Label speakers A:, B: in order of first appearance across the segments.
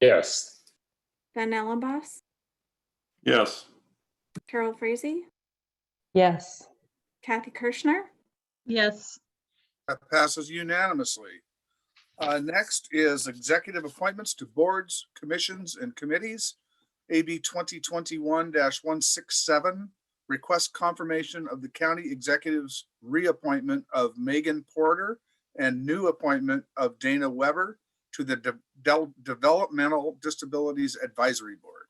A: Yes.
B: Van Ellenboss,
C: Yes.
B: Carol Frazee,
D: Yes.
B: Kathy Kirschner,
E: Yes,
F: That passes unanimously. Uh, Next is executive appointments to boards, commissions, and committees. AB 2021-167, request confirmation of the county executive's reappointment of Megan Porter and new appointment of Dana Weber to the De- Del- Developmental Disabilities Advisory Board.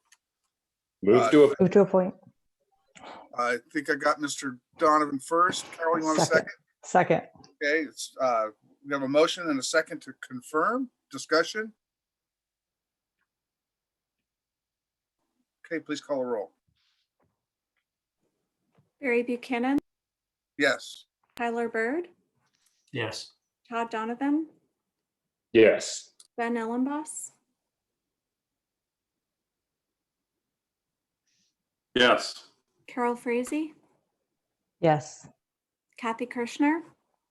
A: Move to, a-
D: Move to appoint.
F: I think I got Mr. Donovan first. Carol, you want a
D: Second.
F: second?
D: Second.
F: Okay, it's, uh, we have a motion and a second to confirm, discussion. Okay, please call a roll.
B: Barry Buchanan,
F: Yes,
B: Tyler Bird,
G: yes,
B: Todd Donovan,
A: yes.
B: Van Ellenboss,
C: Yes.
B: Carol Frazee,
D: Yes.
B: Kathy Kirschner,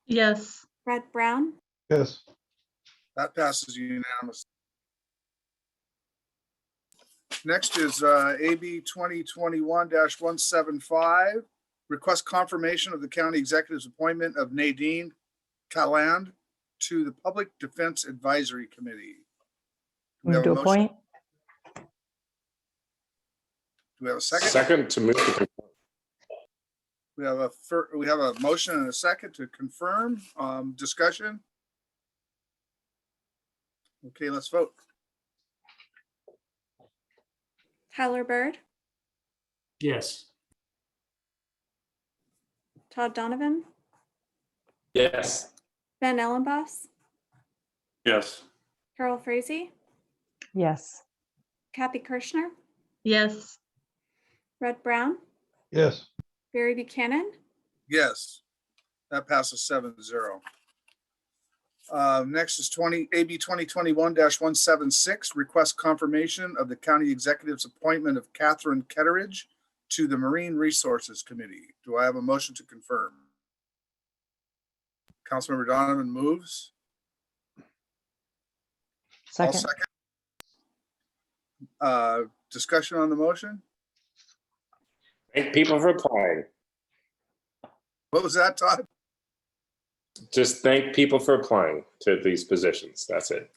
E: yes,
B: Brett Brown,
H: yes,
F: that passes unanimously. Next is, uh, AB twenty twenty-one one seven five. Request confirmation of the county executive's appointment of Nadine Calland to the Public Defense Advisory Committee. Do we
D: Move
F: have a
D: to
F: motion?
D: appoint.
F: Do we have a second?
A: Second to move to,
F: We have a, fir- we have a motion and a second to confirm, um, discussion. Okay, let's vote.
B: Tyler Bird,
G: yes,
B: Todd Donovan,
A: yes.
B: Van Ellenboss,
C: Yes.
B: Carol Frazee,
D: Yes.
B: Kathy Kirschner,
E: yes,
B: Brett Brown,
H: yes.
B: Barry Buchanan,
F: Yes, that passes seven zero. Uh, next is twenty, AB twenty twenty-one one seven six, request confirmation of the county executive's appointment of Catherine Ketteridge to the Marine Resources Committee. Do I have a motion to confirm? Councilmember Donovan moves. I'll
D: Second.
F: Uh, Discussion on the motion?
A: Thank people for applying.
F: What was that, Todd?
A: Just thank people for applying to these positions. That's it.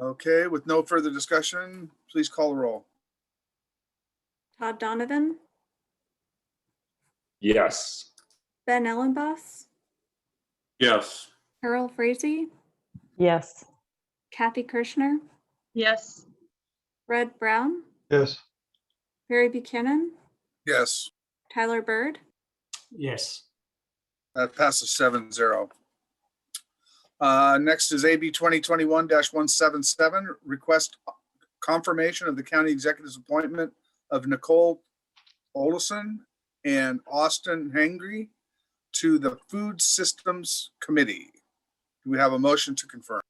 F: Okay, with no further discussion, please call the roll.
B: Todd Donovan,
A: Yes.
B: Van Ellenboss,
C: Yes.
B: Carol Frazee,
D: Yes.
B: Kathy Kirschner,
E: yes,
B: Brett Brown,
H: Yes.
B: Barry Buchanan,
F: Yes,
B: Tyler Bird,
G: yes,
F: that passes seven zero. Uh, next is AB twenty twenty-one one seven seven, request confirmation of the county executive's appointment of Nicole Olson and Austin Hengry to the Food Systems Committee. Do we have a motion to confirm?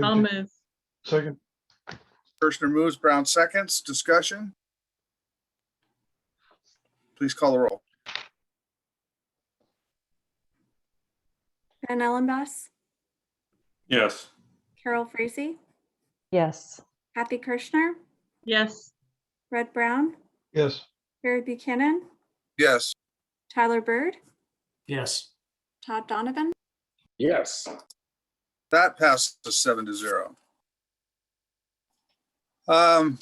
E: I'll
H: Moved.
E: move,
H: Second,
F: Kirshner moves, Brown seconds, discussion? Please call the roll.
B: Van Ellenboss,
C: Yes.
B: Carol Frazee,
D: Yes.
B: Kathy Kirschner,
E: yes,
B: Brett Brown,
H: yes,
B: Barry Buchanan,
F: Yes,
B: Tyler Bird,
G: yes,
B: Todd Donovan,
A: Yes.
F: that passes seven to zero. Um,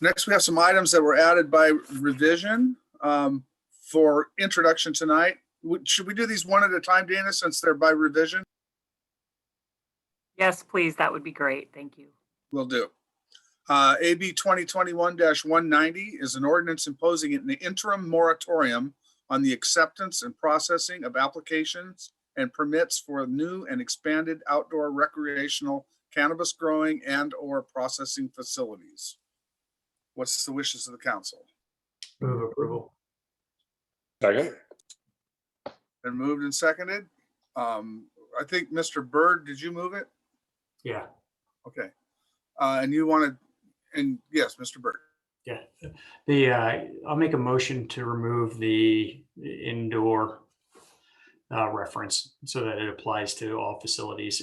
F: next, we have some items that were added by revision, um, for introduction tonight. Would- Should we do these one at a time, Dana, since they're by revision?
I: Yes, please. That would be great. Thank you.
F: Will do. Uh, AB 2021-190 is an ordinance imposing an interim moratorium on the acceptance and processing of applications and permits for new and expanded outdoor recreational cannabis growing and/or processing facilities. What's the wishes of the council?
G: move approval,
A: Second?
F: Been moved and seconded. Um, I think Mr. Byrd, did you move it?
G: yeah.
F: Okay. Uh, and you wanted, and yes, Mr. Byrd.
G: Yeah, the, uh, I'll make a motion to remove the indoor uh, reference so that it applies to all facilities